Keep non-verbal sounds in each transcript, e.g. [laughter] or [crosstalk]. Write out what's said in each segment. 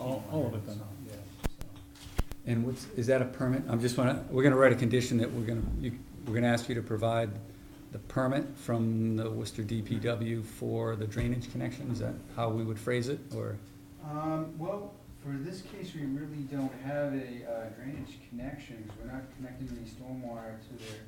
all, all of it then, yeah, so. And what's, is that a permit? I'm just wanna, we're gonna write a condition that we're gonna, you, we're gonna ask you to provide the permit from the Worcester DPW for the drainage connection, is that how we would phrase it, or? Um, well, for this case, we really don't have a uh, drainage connection, 'cause we're not connecting any stormwater to their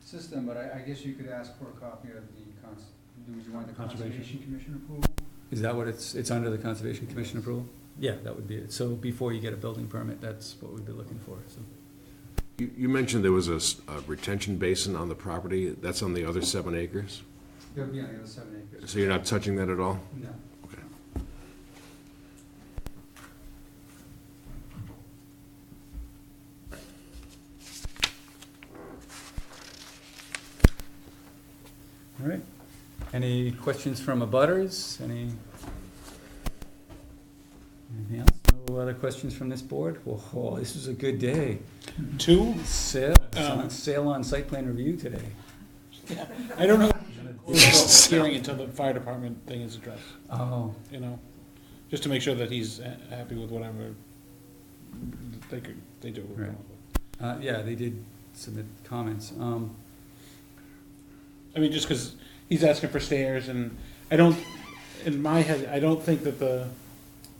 system, but I, I guess you could ask for a copy of the cons, do you want the Conservation. Conservation Commission approval? Is that what it's, it's under the Conservation Commission approval? Yeah, that would be it, so before you get a building permit, that's what we'd be looking for, so. You, you mentioned there was a s- a retention basin on the property, that's on the other seven acres? It'll be on the other seven acres. So you're not touching that at all? No. Okay. All right, any questions from abutters, any? Anything else? No other questions from this board? Whoa, this was a good day. Two, Sale, Um, sale on site plan review today. I don't know, Close the hearing until the fire department thing is addressed, Oh, you know, just to make sure that he's ha- happy with whatever they could, they do. Right. uh, yeah, they did submit comments. Um, I mean, just because he's asking for stairs and I don't, in my head, I don't think that the,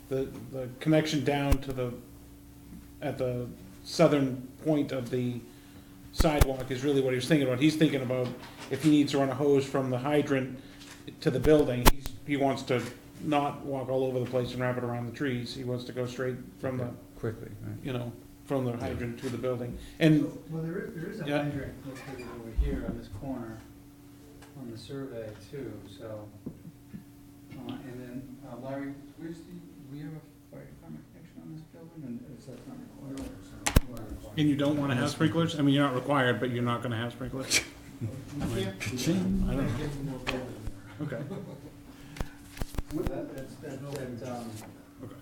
the, the connection down to the, at the southern point of the sidewalk is really what he was thinking about. He's thinking about if he needs to run a hose from the hydrant to the building, he's, he wants to not walk all over the place and wrap it around the trees. He wants to go straight from the, Quickly, right. you know, from the hydrant to the building. And Well, there is, there is a Yeah. hydrant located over here on this corner, on the survey too, so. Uh, and then, uh, Larry, where's the, we have a fire department connection on this building, and it's, that's not required, so. we're not required. And you don't wanna have sprinklers? I mean, you're not required, but you're not gonna have [laughs] sprinklers? We can't- I don't know. Get more building Okay, there. That, that's, that, that, um, okay.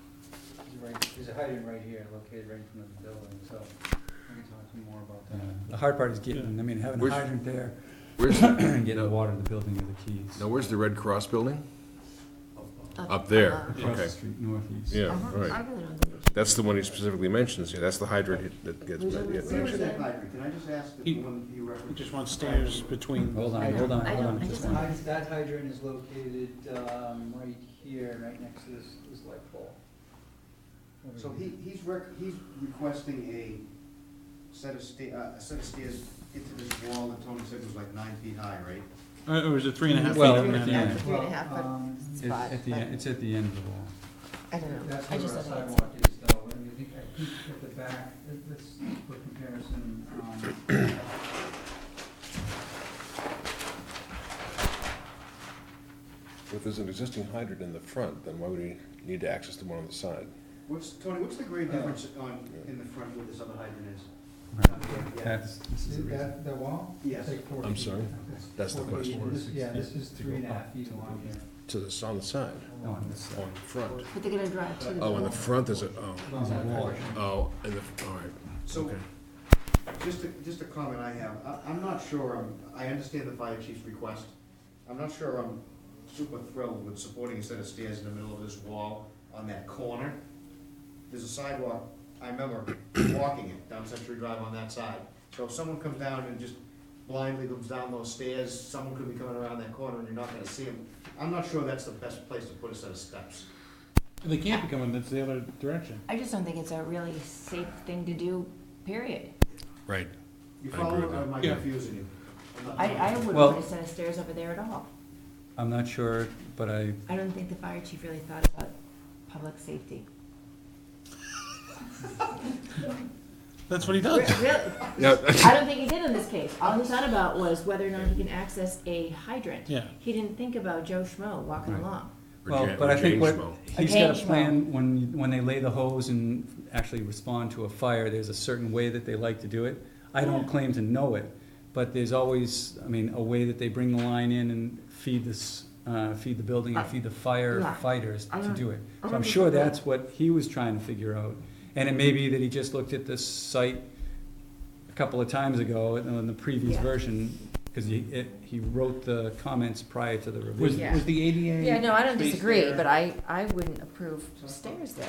is right, there's a hydrant right here, located right in front of the building, so I can talk to you more about Uh, that. The hard part is getting, I mean, having a Where's- hydrant there Where's, the- and [clears throat] getting the water to the building are the keys. now where's the Red Cross building? Up uh, there, Across the okay, street, northeast. yeah, I all don't- Uh-huh. I right. really don't know. That's the one he specifically mentions, yeah, that's the hydrant that gets, yeah. Where's that hydrant? Can I just ask that He- the one you He referenced? just wants stairs between. Hold I on, don't- hold on, I hold don't- on. I just just one- don't- Hy- That hydrant is located, um, right here, right next to this, this light pole. Over So here. he, he's rec, he's requesting a set of sta, uh, a set of stairs into this wall that Tony said was like nine feet high, right? Uh, Or is it three and a half feet? Well, up and yeah. down? Three and a Well, half foot um, It's spot, at the, but en- it's at the end of the wall. I don't know. That's I where just our don't think it's- sidewalk is though, and I think, I think at the back, let- let's for comparison, um. If there's an existing hydrant in the front, then why would we need to access the one on the side? What's, Tony, what's the grade Uh, difference on, in the front where this other hydrant is? Yeah. That's, this is See the reason. that, that wall? Yes. It's like four I'm feet. sorry? It's That's the four feet. question. This- Yeah, this is three and a half feet long here. To the, on the side, No, on this on side. the front. But they're gonna drive to the. Oh, in the front there's a, Long side oh, porch. oh, in the, all right, So, okay. just a, just a comment I have, I, I'm not sure, I'm, I understand the fire chief's request. I'm not sure I'm super thrilled with supporting a set of stairs in the middle of this wall on that corner. There's a sidewalk, I remember walking it down Century Drive on that side. So if someone comes down and just blindly comes down those stairs, someone could be coming around that corner and you're not gonna see them. I'm not sure that's the best place to put a set of steps. They can't be coming, that's the other direction. I just don't think it's a really safe thing to do, period. Right. You I agree follow, with or am I Yeah. confusing you? I'm not- I, I wouldn't Well- put a set of stairs over there at all. I'm not sure, but I, I don't think the fire chief really thought about public safety. That's what he Re- does. Really, Yeah, I don't think he did in this case. All he thought about was whether or not he can access a hydrant. Yeah. He didn't think about Joe Schmo walking Right. along. well, but I think what, he's got a James plan, when, when they lay the hose and actually respond to a fire, there's a certain way that they like to do it. I don't claim to know it, but there's always, I mean, a way that they bring the line in and feed this, uh, feed the building and feed the Yeah. firefighters I to don't- do it. I So don't I'm sure disagree. that's what he was trying to figure out, and it may be that he just looked at this site a couple of times ago, in the previous Yeah. version, cause he, it, he wrote the comments prior to the revision. Was, was the ADA? Yeah, no, I don't space disagree, there? but I, I wouldn't approve stairs there.